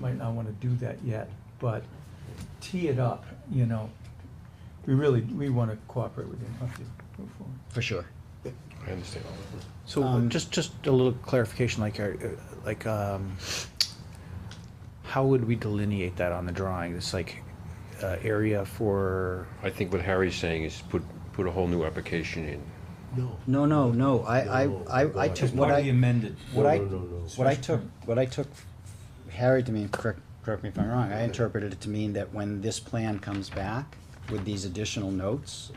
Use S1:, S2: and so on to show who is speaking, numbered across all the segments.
S1: might not wanna do that yet, but tee it up, you know. We really, we wanna cooperate with you and help you move forward.
S2: for sure.
S3: I understand all that.
S4: So uh,
S2: Um,
S4: just, just a little clarification, like, uh, like, um, how would we delineate that on the drawing? This like, uh, area for,
S3: I think what Harry's saying is put, put a whole new application in.
S5: No.
S2: No, no, no, I, I,
S5: No,
S2: I, I took
S5: Just
S2: what I,
S1: amended.
S2: what
S5: No,
S2: I,
S5: no, no, no.
S2: what I took, what I took, Harry to mean, correct, correct me if I'm wrong, I interpreted it to mean that when this plan comes back with these additional notes,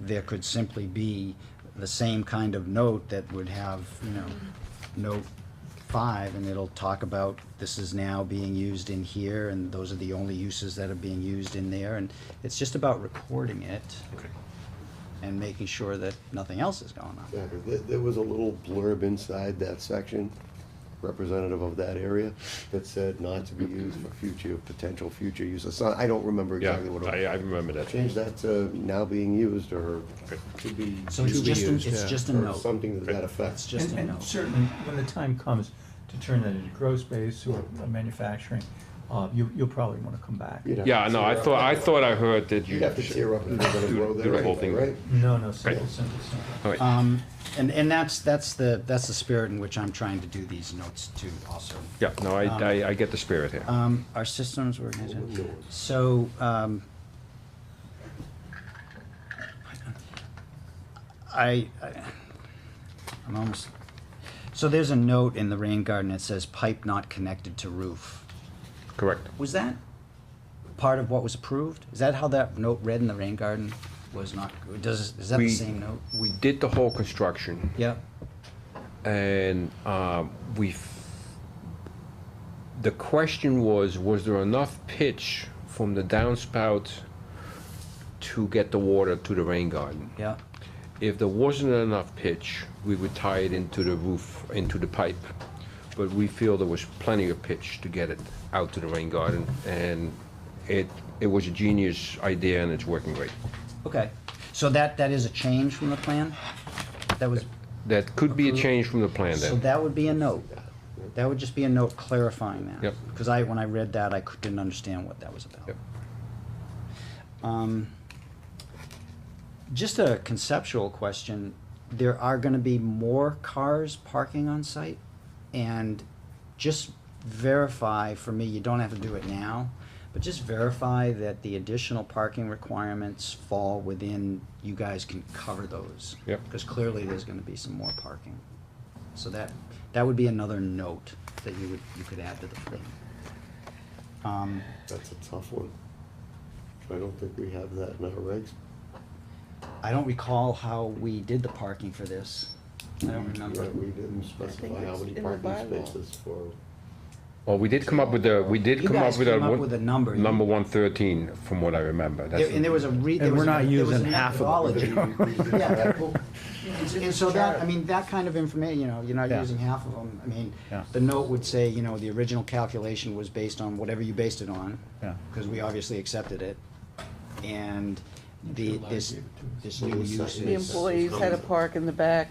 S2: there could simply be the same kind of note that would have, you know, note five, and it'll talk about this is now being used in here, and those are the only uses that are being used in there, and it's just about recording it
S3: Okay.
S2: and making sure that nothing else is going on.
S5: Exactly. There, there was a little blurb inside that section, representative of that area, that said not to be used for future, potential future use of sign. I don't remember
S3: Yeah,
S5: exactly what it was.
S3: I, I remember that.
S5: Change that to now being used or
S3: Okay.
S5: to be.
S2: So it's
S5: to be
S2: just, an-
S5: used,
S2: it's
S4: yeah.
S2: just a
S5: or
S2: note.
S5: Something to that
S2: It's
S5: effect.
S2: just a
S1: And-
S2: note.
S1: And certainly, when the time comes to turn that into grow space or manufacturing, uh, you, you'll probably wanna come back.
S5: You'd have to
S3: Yeah, no, I
S5: tear up-
S3: thought, I thought I heard that you.
S5: You'd have to tear up and you're gonna
S3: Do-
S5: grow
S3: do
S5: there
S3: the whole
S5: anyway,
S3: thing.
S5: right?
S1: No, no, simple, simple, simple.
S3: All right.
S2: Um, and, and that's, that's the, that's the spirit in which I'm trying to do these notes too also.
S3: Yeah, no, I, I, I get the spirit here.
S2: Um, our systems were, so, um, I, I, I'm almost, so there's a note in the rain garden that says pipe not connected to roof.
S3: Correct.
S2: Was that part of what was approved? Is that how that note read in the rain garden? Was not, does, is that the
S3: We-
S2: same note?
S3: We did the whole construction
S2: Yep,
S3: and, um, we, the question was, was there enough pitch from the downspout to get the water to the rain garden?
S2: yep,
S3: If there wasn't enough pitch, we would tie it into the roof, into the pipe. But we feel there was plenty of pitch to get it out to the rain garden, and it, it was a genius idea, and it's working great.
S2: okay. So that, that is a change from the plan? That was,
S3: That could be a change from the plan
S2: So
S3: then.
S2: that would be a note. That would just be a note clarifying that.
S3: Yep.
S2: Because I, when I read that, I cou- didn't understand what that was about.
S3: Yep.
S2: Um, Just a conceptual question. There are gonna be more cars parking on site? And just verify for me, you don't have to do it now, but just verify that the additional parking requirements fall within, you guys can cover those.
S3: Yep.
S2: Because clearly there's gonna be some more parking. So that, that would be another note that you would, you could add to the plan. Um,
S5: That's a tough one. I don't think we have that in our regs.
S2: I don't recall how we did the parking for this. I don't remember.
S5: Right, We didn't specify how
S6: it's
S5: many
S6: in the
S5: parking
S6: bylaw.
S5: spaces for.
S3: Well, we did come up with a, we did
S2: You
S3: come
S2: guys
S3: up with a,
S2: came up with a
S3: one-
S2: number.
S3: number one thirteen, from what I remember. That's
S2: There- And there was a re, there
S4: And
S2: was.
S4: we're
S2: a-
S4: not
S2: there was
S4: using
S2: a
S4: half of
S2: methodology. Yeah, well, And so that, I mean, that kind of information, you know, you're not
S4: Yeah.
S2: using half of them. I mean,
S4: Yeah.
S2: the note would say, you know, the original calculation was based on whatever you based it on.
S4: Yeah.
S2: Because we obviously accepted it. And the, this, this
S5: Well,
S2: new
S5: it's
S2: use
S5: not-
S6: The
S2: is.
S6: employees had a park in the back.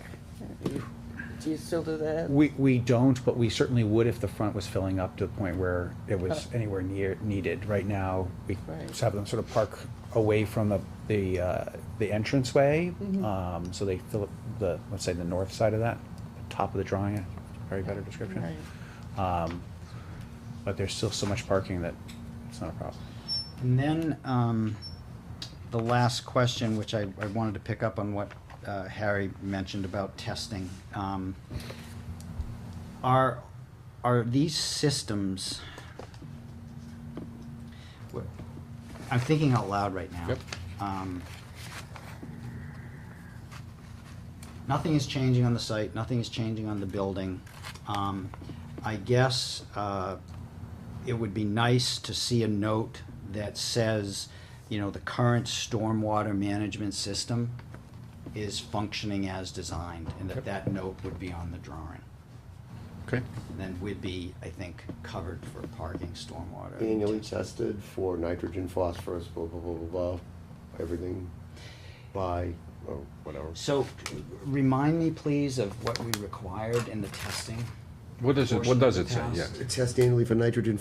S6: Do you still do that?
S4: we, we don't, but we certainly would if the front was filling up to the point where it was anywhere near, needed. Right now, we
S6: Right.
S4: just have them sort of park away from the, the, uh, the entranceway.
S6: Mm-hmm.
S4: Um, so they fill up the, let's say, the north side of that, top of the drawing, very better description.
S6: Right.
S4: Um, but there's still so much parking that it's not a problem.
S2: And then, um, the last question, which I, I wanted to pick up on what, uh, Harry mentioned about testing. Um, Are, are these systems? what- I'm thinking out loud right now.
S3: Yep.
S2: Um, Nothing is changing on the site, nothing is changing on the building. Um, I guess, uh, it would be nice to see a note that says, you know, the current stormwater management system is functioning as designed, and that that note would be on the drawing.
S3: Okay,
S2: Then we'd be, I think, covered for parking stormwater.
S5: Annually tested for nitrogen, phosphorus, blah, blah, blah, blah, blah, everything by, or whatever.
S2: So, remind me, please, of what we required in the testing.
S3: what does it, what does it say, yeah?
S5: Test annually for nitrogen,